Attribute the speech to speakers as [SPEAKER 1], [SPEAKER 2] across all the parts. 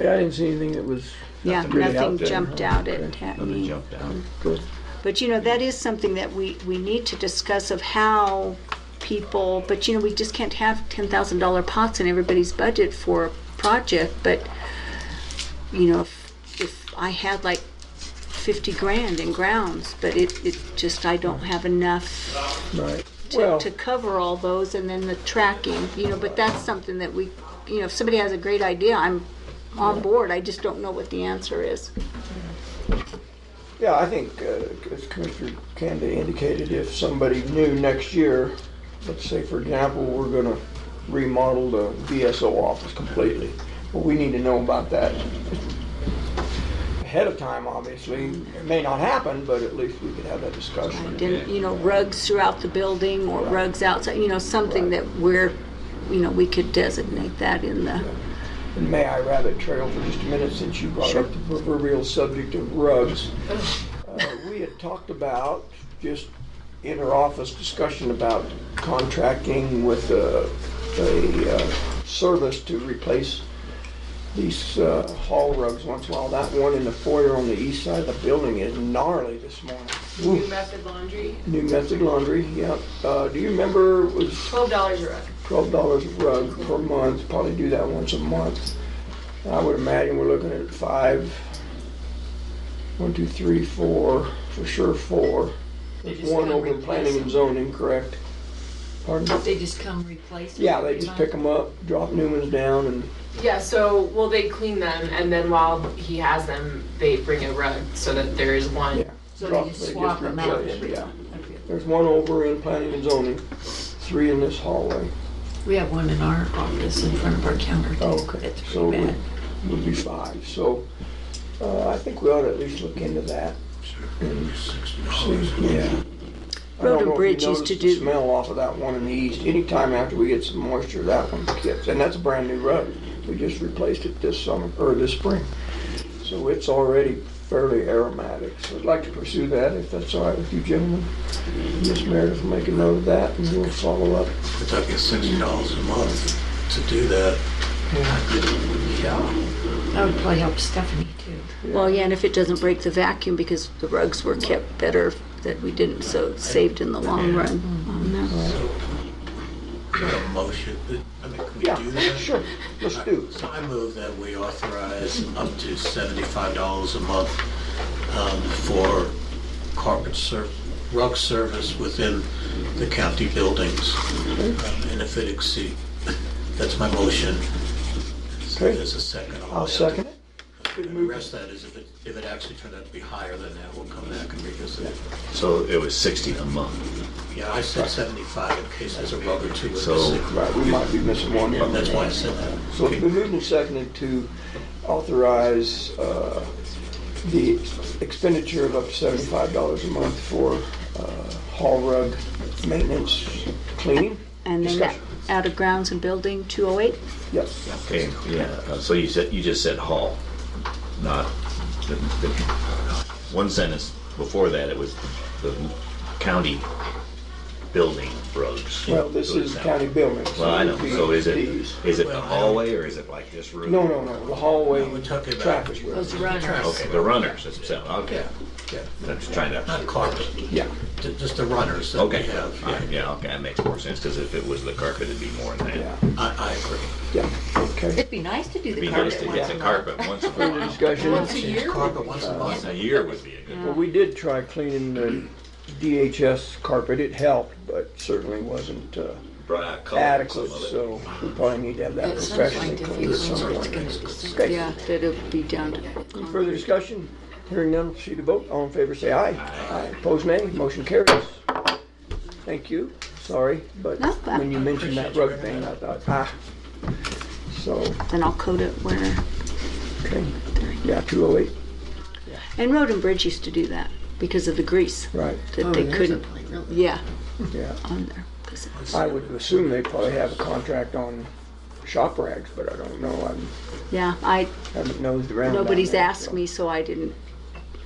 [SPEAKER 1] Yeah, I didn't see anything that was,
[SPEAKER 2] Yeah,
[SPEAKER 1] Nothing really
[SPEAKER 2] nothing
[SPEAKER 1] out there,
[SPEAKER 2] jumped
[SPEAKER 1] huh?
[SPEAKER 2] out at
[SPEAKER 1] Okay. Mm,
[SPEAKER 2] Hackney.
[SPEAKER 3] Nothing jumped out.
[SPEAKER 1] good.
[SPEAKER 2] But you know, that is something that we, we need to discuss of how people, but you know, we just can't have ten thousand dollar pots in everybody's budget for a project, but you know, if, if I had like fifty grand in grounds, but it, it just, I don't have enough
[SPEAKER 1] Right.
[SPEAKER 2] to,
[SPEAKER 1] Well,
[SPEAKER 2] to cover all those and then the tracking, you know, but that's something that we, you know, if somebody has a great idea, I'm on board, I just don't know what the answer is.
[SPEAKER 1] yeah, I think, uh, as Commissioner Kanda indicated, if somebody new next year, let's say, for example, we're gonna remodel the VSO office completely. Well, we need to know about that ahead of time, obviously. It may not happen, but at least we could have that discussion.
[SPEAKER 2] And, you know, rugs throughout the building or rugs outside, you know, something that we're, you know, we could designate that in the,
[SPEAKER 1] And may I rabbit trail for just a minute since you brought up the proverbial subject of rugs? Uh, We had talked about just inter-office discussion about contracting with a, a uh, service to replace these uh, hall rugs once in a while. That one in the foyer on the east side of the building is gnarly this morning.
[SPEAKER 4] New
[SPEAKER 1] Oof.
[SPEAKER 4] method laundry,
[SPEAKER 1] New Method Laundry, yep. Uh, Do you remember, it was
[SPEAKER 4] twelve dollars a rug.
[SPEAKER 1] twelve dollars a rug per month, probably do that once a month. And I would imagine we're looking at five, one, two, three, four, for sure four.
[SPEAKER 4] They
[SPEAKER 1] There's
[SPEAKER 4] just
[SPEAKER 1] one
[SPEAKER 4] come
[SPEAKER 1] over in
[SPEAKER 4] replace
[SPEAKER 1] planning and zoning, correct? Pardon?
[SPEAKER 4] They just come replace them.
[SPEAKER 1] Yeah, they just pick them up, drop new ones down and,
[SPEAKER 5] Yeah, so, well, they clean them, and then while he has them, they bring a rug so that there is one.
[SPEAKER 1] yeah.
[SPEAKER 4] So
[SPEAKER 1] drop-
[SPEAKER 4] they just swap them out
[SPEAKER 1] replace,
[SPEAKER 4] every
[SPEAKER 1] yeah.
[SPEAKER 4] time. Okay.
[SPEAKER 1] There's one over in planning and zoning, three in this hallway.
[SPEAKER 4] We have one in our office in front of our counter. too.
[SPEAKER 1] Oh, okay.
[SPEAKER 4] It's
[SPEAKER 1] So
[SPEAKER 4] pretty
[SPEAKER 1] it
[SPEAKER 4] bad.
[SPEAKER 1] would be five. So uh, I think we ought to at least look into that. and see. Yeah. I don't
[SPEAKER 2] Road and
[SPEAKER 1] know if you
[SPEAKER 2] Bridge used
[SPEAKER 1] noticed
[SPEAKER 2] to
[SPEAKER 1] the
[SPEAKER 2] do-
[SPEAKER 1] Smell off of that one in the east. Anytime after we get some moisture, that one kicks. And that's a brand new rug. We just replaced it this summer, or this spring. So it's already fairly aromatic. So I'd like to pursue that if that's all right with you gentlemen. Miss Meredith will make a note of that and we'll follow up.
[SPEAKER 6] It's like it's sixty dollars a month to do that. uh,
[SPEAKER 4] Yeah. That would probably help Stephanie too.
[SPEAKER 2] well, yeah, and if it doesn't break the vacuum because the rugs were kept better that we didn't, so it saved in the long run
[SPEAKER 4] Mm-hmm.
[SPEAKER 2] on that.
[SPEAKER 6] So, is that a motion, I mean, can we
[SPEAKER 1] Yeah,
[SPEAKER 6] do that?
[SPEAKER 1] sure. Let's do.
[SPEAKER 6] So I move that we authorize up to seventy-five dollars a month um, for carpet ser, rug service within the county buildings. Um, And if it exceed, that's my motion. So
[SPEAKER 1] Okay.
[SPEAKER 6] There's a second.
[SPEAKER 1] I'll second it.
[SPEAKER 6] And the rest of that is if it, if it actually turned out to be higher than that, we'll come back and revisit it.
[SPEAKER 3] So it was 60 a month.
[SPEAKER 6] Yeah, I said seventy-five in case there's a rug or two. we're
[SPEAKER 3] So-
[SPEAKER 6] missing.
[SPEAKER 1] Right, we might be missing one.
[SPEAKER 6] That's why I said that.
[SPEAKER 1] So it's been moved and seconded to authorize uh, the expenditure of up to seventy-five dollars a month for uh, hall rug maintenance cleaning.
[SPEAKER 2] And then that,
[SPEAKER 1] Discussion.
[SPEAKER 2] out of grounds and building, two oh eight?
[SPEAKER 1] Yes,
[SPEAKER 3] Okay, yeah. Uh, So you said, you just said hall, not, the, the, one sentence before that, it was the county building roads.
[SPEAKER 1] well, this is county building. so
[SPEAKER 3] Well, I
[SPEAKER 1] it
[SPEAKER 3] know,
[SPEAKER 1] would be
[SPEAKER 3] so is it,
[SPEAKER 1] these.
[SPEAKER 3] is it
[SPEAKER 6] Well,
[SPEAKER 3] the
[SPEAKER 6] I don't-
[SPEAKER 3] hallway or is it like this room?
[SPEAKER 1] No, no, no, the hallway,
[SPEAKER 6] No, we're talking about-
[SPEAKER 1] traffic.
[SPEAKER 4] Those runners.
[SPEAKER 3] Okay, the runners, that's, okay.
[SPEAKER 6] Yeah, yeah,
[SPEAKER 3] I'm just trying to,
[SPEAKER 6] not carpet,
[SPEAKER 1] Yeah,
[SPEAKER 6] ju- just the runners that we
[SPEAKER 3] okay,
[SPEAKER 6] have.
[SPEAKER 3] yeah, yeah, okay, that makes more sense, because if it was the carpet, it'd be more than
[SPEAKER 1] yeah,
[SPEAKER 3] that.
[SPEAKER 6] I, I agree.
[SPEAKER 1] yeah, okay.
[SPEAKER 4] It'd be nice to do
[SPEAKER 3] It'd be
[SPEAKER 4] the
[SPEAKER 3] nice
[SPEAKER 4] carpet
[SPEAKER 3] to
[SPEAKER 4] once
[SPEAKER 3] get
[SPEAKER 4] a
[SPEAKER 3] the
[SPEAKER 4] month.
[SPEAKER 3] carpet once in a while.
[SPEAKER 1] Discussion.
[SPEAKER 6] Carpet once a month.
[SPEAKER 3] A year would be a good
[SPEAKER 1] Well, we did try cleaning the DHS carpet. It helped, but certainly wasn't uh,
[SPEAKER 3] bright color.
[SPEAKER 1] adequate,
[SPEAKER 3] some of it.
[SPEAKER 1] so we probably need to have that
[SPEAKER 4] It sounds
[SPEAKER 1] professionally
[SPEAKER 4] like the
[SPEAKER 1] cleaned at some
[SPEAKER 4] it's
[SPEAKER 1] point.
[SPEAKER 4] gonna be soon.
[SPEAKER 1] Okay.
[SPEAKER 2] Yeah, that would be down to.
[SPEAKER 1] Further discussion? Hearing none, proceed to vote. All in favor, say aye. Aye. Opposed, nay. Motion carries. Thank you. Sorry, but
[SPEAKER 2] Not bad.
[SPEAKER 1] when you mentioned that rug thing, I thought, ah. So,
[SPEAKER 2] Then I'll code it where,
[SPEAKER 1] okay. Yeah, 208,
[SPEAKER 2] and Road and Bridge used to do that because of the grease
[SPEAKER 1] right,
[SPEAKER 4] Oh,
[SPEAKER 2] that they couldn't, yeah,
[SPEAKER 1] yeah.
[SPEAKER 2] on there. 'Cause it-
[SPEAKER 1] I would assume they probably have a contract on shop rags, but I don't know. I
[SPEAKER 2] Yeah, I,
[SPEAKER 1] haven't nosed around. down
[SPEAKER 2] Nobody's
[SPEAKER 1] there,
[SPEAKER 2] asked
[SPEAKER 1] so.
[SPEAKER 2] me, so I didn't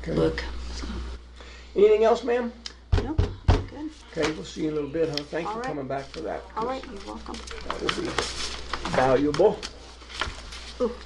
[SPEAKER 1] Okay.
[SPEAKER 2] look.
[SPEAKER 1] Anything else, ma'am?
[SPEAKER 2] No, good.
[SPEAKER 1] Okay, we'll see you in a little bit, huh? Thanks
[SPEAKER 2] All
[SPEAKER 1] for
[SPEAKER 2] right.
[SPEAKER 1] coming back for that.
[SPEAKER 2] All right, you're welcome.
[SPEAKER 1] That will be valuable.